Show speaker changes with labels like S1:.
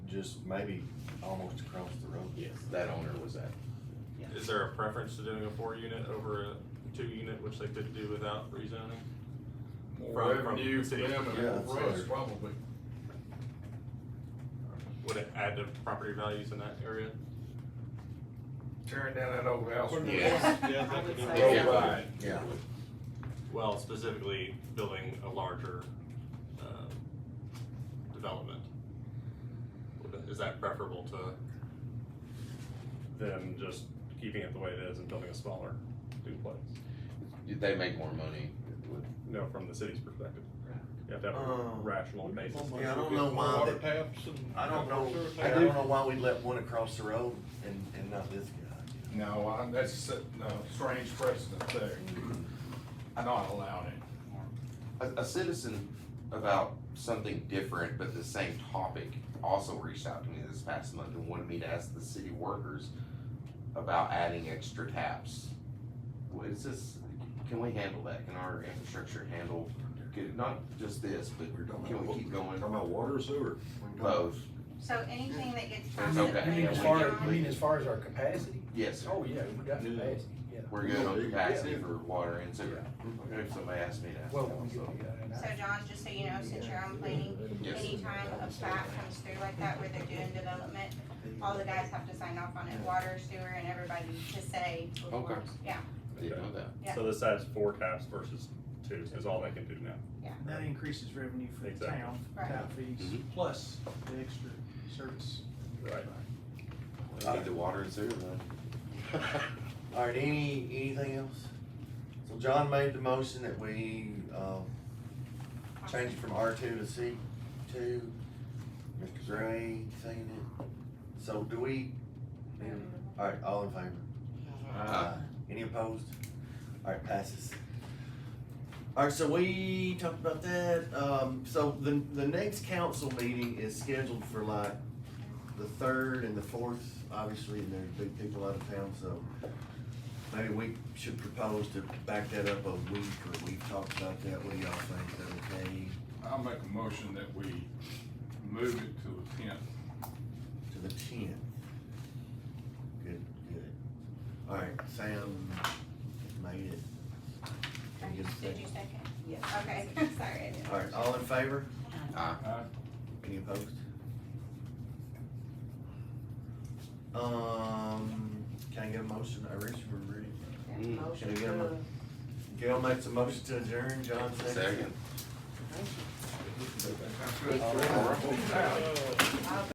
S1: just maybe almost across the road.
S2: Yes.
S3: That owner was at.
S2: Yeah.
S4: Is there a preference to doing a four unit over a two unit, which they could do without rezoning?
S5: More
S4: From- from
S5: revenue for
S4: cities.
S5: them and
S1: Yeah,
S5: more
S1: that's
S5: for us,
S1: fair.
S5: probably.
S4: Would it add to property values in that area?
S5: Tearing down that old house.
S3: to Yeah.
S2: Yeah,
S6: I would
S2: definitely.
S6: say so.
S5: Worldwide.
S3: Yeah.
S4: Well, specifically building a larger, um, development. Would- Is that preferable to them just keeping it the way it is and building a smaller duplex?
S3: They make more money.
S4: No, from the city's perspective. You have to have a
S1: Um,
S4: rational basis.
S1: Yeah, I don't know why
S5: Water
S1: that-
S5: taps and-
S1: I don't know, I
S5: I
S1: don't
S5: do.
S1: know why we let one across the road and, and not this guy.
S5: No, I, that's, a- no, strange precedent there. I not allowed it.
S3: A, a citizen about something different but the same topic also reached out to me this past month and wanted me to ask the city workers about adding extra taps. What is this, can we handle that? Can our infrastructure handle, could- not just this, but can we keep going?
S1: Talking about water or sewer?
S3: Both,
S6: So anything that gets
S3: It's okay.
S7: You mean
S6: processed
S7: as
S3: Yeah,
S6: by
S7: far,
S3: we-
S6: John,
S7: you mean as far as our capacity?
S3: yes, sir.
S7: Oh, yeah, we got
S1: Yeah.
S7: capacity, yeah.
S3: We're good on capacity for water and
S7: Yeah.
S3: sewer. If somebody asked me to
S7: Well,
S3: ask them,
S7: we
S3: so.
S7: do, yeah, and
S6: So
S7: I-
S6: John, just so you know, since you're on planning,
S3: Yes.
S6: anytime a plat comes through like that where they're doing development, all the guys have to sign off on it, water, sewer, and everybody to say before,
S3: Okay.
S6: yeah.
S3: Didn't know that.
S6: Yeah.
S4: So this has four taps versus two is all they can do now.
S8: And that increases revenue for the
S4: Exactly.
S8: town,
S6: Right.
S8: tap fees,
S3: Mhm.
S8: plus the extra service.
S4: Right.
S3: We Need the water and sewer, man.
S1: Alright, any, anything else? So John made the motion that we, um, change it from R two to C two. Mr. Gray seconded it. So do we? Alright, all in favor?
S3: Uh,
S1: Any opposed? Alright, passes. Alright, so we talked about that, um, so the, the next council meeting is scheduled for like the third and the fourth, obviously, and there's big people out of town, so maybe we should propose to back that up a week, or we've talked about that, what do y'all think, is that okay?
S5: I'll make a motion that we move it to the tenth.
S1: To the tenth. Good, good. Alright, Sam made it. Can you get a
S6: Did you
S1: second?
S6: second?
S2: Yes.
S6: Okay, sorry. I didn't.
S1: Alright, all in favor?
S3: uh,
S1: Any opposed? Um, can I get a motion? I reached for Rudy. Can I
S2: Motion
S1: get a
S2: to
S1: mo- Gail makes a motion to adjourn, John
S3: Second.
S1: All right.
S7: Oh,
S5: Alright.